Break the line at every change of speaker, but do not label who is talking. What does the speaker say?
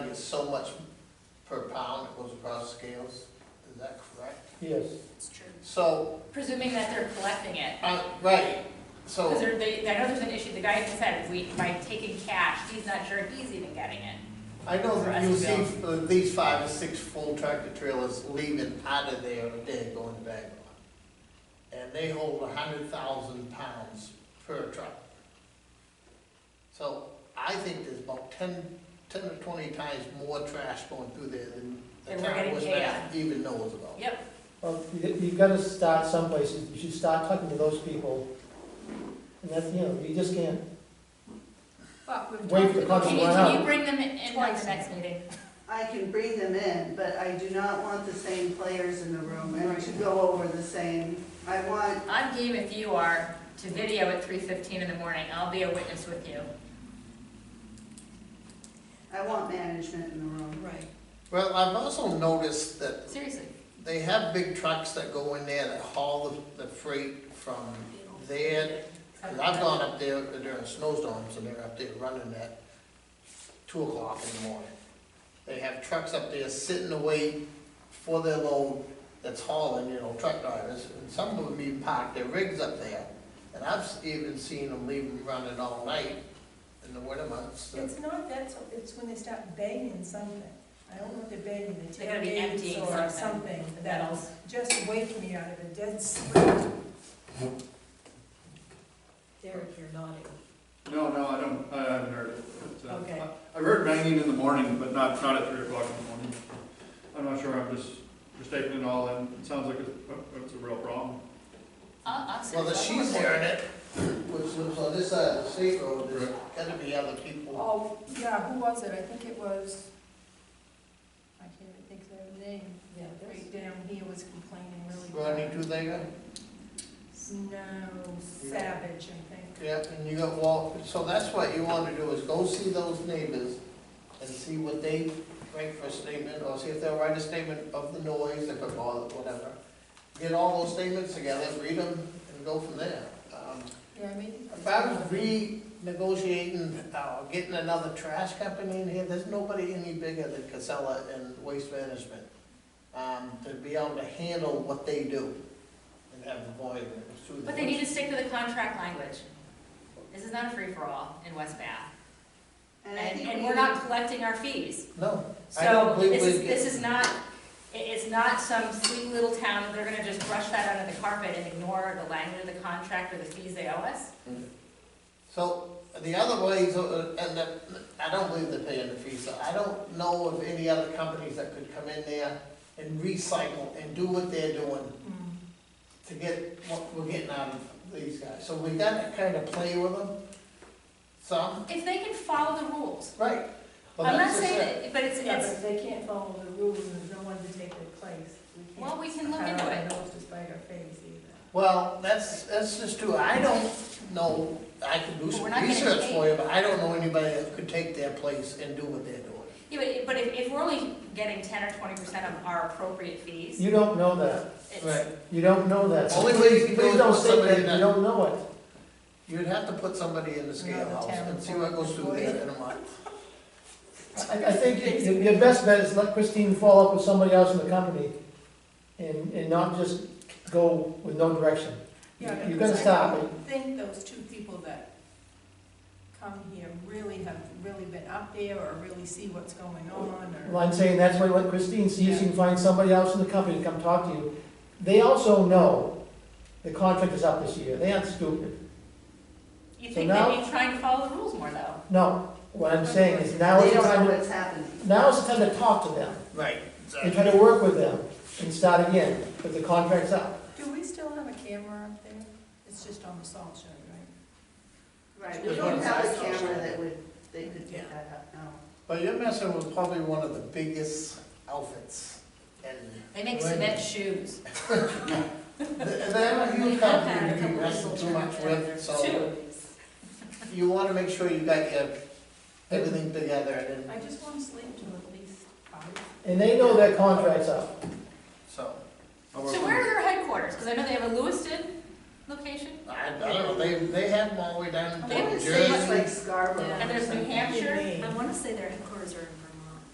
so much per pound that goes across scales, is that correct?
Yes,
It's true.
So,
Presuming that they're collecting it.
uh, right,
Because
so,
there, they, I know there's an issue, the guy had said, we, by taking cash, he's not sure if he's even getting it.
I know
For
that
us
you
to
see at least five or six full tractor trailers leaving out of there a day going to Bangalore. And they hold a hundred thousand pounds per truck. So I think there's about ten, ten or twenty times more trash going through there than the
Than we're
town
getting
was
paid
not even knows about.
Yep,
well, you- you've got to start someplace, you should start talking to those people. And that's, you know, you just can't,
well, we've
Wait
talked
for the
about-
clock to
Can you,
run
can you
out.
bring them in in on
Twice.
the next meeting?
I can bring them in, but I do not want the same players in the room and to go over the same. I want,
I'm game if you are to video at three fifteen in the morning, I'll be a witness with you.
I want management in the room.
Right.
Well, I've also noticed that
Seriously,
They have big trucks that go in there that haul the, the freight from there. And I've gone up there during snowstorms and they're up there running at two o'clock in the morning. They have trucks up there sitting away for their load that's hauling, you know, truck drivers. And some of them even park their rigs up there. And I've s- even seen them leave them running all night in the winter months.
It's not that, so- it's when they start banging something. I don't know what they're banging, the
They gotta be
tailgates
emptying
or
something,
something.
the
that
metals.
Just wake me out of a dead sleep.
Derek, you're nodding.
No, no, I don't, I haven't heard it. But, uh,
Okay.
I- I've heard banging in the morning, but not, not at three o'clock in the morning. I'm not sure, I'm just, just taking it all in. It sounds like it's, uh, it's a real problem.
I'll, I'll sit.
Well, the
I'll
she's
look at
hearing it, which lives on this side of the state road, there's gotta be other people.
Oh, yeah, who was it? I think it was, I can't even think of their name.
Yeah, there's,
Right down here was complaining really
Rodney
bad.
Tuthega,
No, Savage, I think.
yeah, and you got Walt, so that's what you wanna do, is go see those neighbors and see what they write for a statement, or see if they'll write a statement of the noise, if it bothers, whatever. Get all those statements together, read them, and go from there. Um,
Yeah, maybe.
About renegotiating, uh, getting another trash company in here, there's nobody any bigger than Casella and Waste Management. Um, to be able to handle what they do and have the volume. through the-
But they need to stick to the contract language. This is not a free-for-all in West Bath,
And I
and,
think
and
we
we're not collecting our fees.
No, I
So
don't believe
this is,
we-
this is not, it- it's not some sweet little town, they're gonna just brush that under the carpet and ignore the language of the contract or the fees they owe us.
So the other ways, uh, and the, I don't believe they're paying the fees, so I don't know of any other companies that could come in there and recycle and do what they're doing
Mm.
to get what we're getting out of these guys. So we gotta kind of play with them some,
If they can follow the rules,
right? Well,
I'm not
that's just
saying,
it.
that- but it's,
Yeah,
it's,
but they can't follow the rules and there's no one to take their place. We can't
well, we can look
cut
into
our
it.
nose to spite our face either.
Well, that's, that's just true, I don't know, I can do
But
some
we're not getting
research for
paid.
you, but I don't know anybody that could take their place and do what they're doing.
Yeah, but, but if, if we're only getting ten or twenty percent of our appropriate fees,
you don't know that,
it's,
you don't know that.
Only way you can do it
Please
is
don't
put
say
somebody
that,
in
you
that-
don't know it.
You'd have to put somebody in the scale house and see what goes through there in a month.
I, I think your- your best bet is let Christine follow up with somebody else in the company and, and not just go with no direction.
Yeah,
You've got to
because
stop it.
I think those two people that come here really have really been up there or really see what's going on
Well,
or.
I'm saying that's why let Christine see if she can find somebody else in the company to come talk to you. They also know the contract is up this year, they aren't stupid.
you
So
think
now-
they'd be trying to follow the rules more though.
No, what I'm saying is now
They
is the
don't know
time, to-
what's happening.
now is the time to talk to them,
Right.
and try to work with them, and start again, but the contract's up.
Do we still have a camera up there? It's just on the salt shed, right?
Right, we don't have a camera that would, they could pick that up, no.
But you're messing with probably one of the biggest outfits and.
They make
Right.
cement shoes.
They're a huge company, you can wrestle too much with, so
Two.
you wanna make sure you got your, everything together and,
I just want to sleep till at least five.
And they know their contract's up.
so.
How about
So where are their headquarters? Because I know they have a Lewiston location,
I, I don't know, they, they had them all the way down
They
to
would
New
say it's
Jersey.
like Scarborough.
and there's New
something.
Hampshire.
I wanna say their headquarters are in Vermont.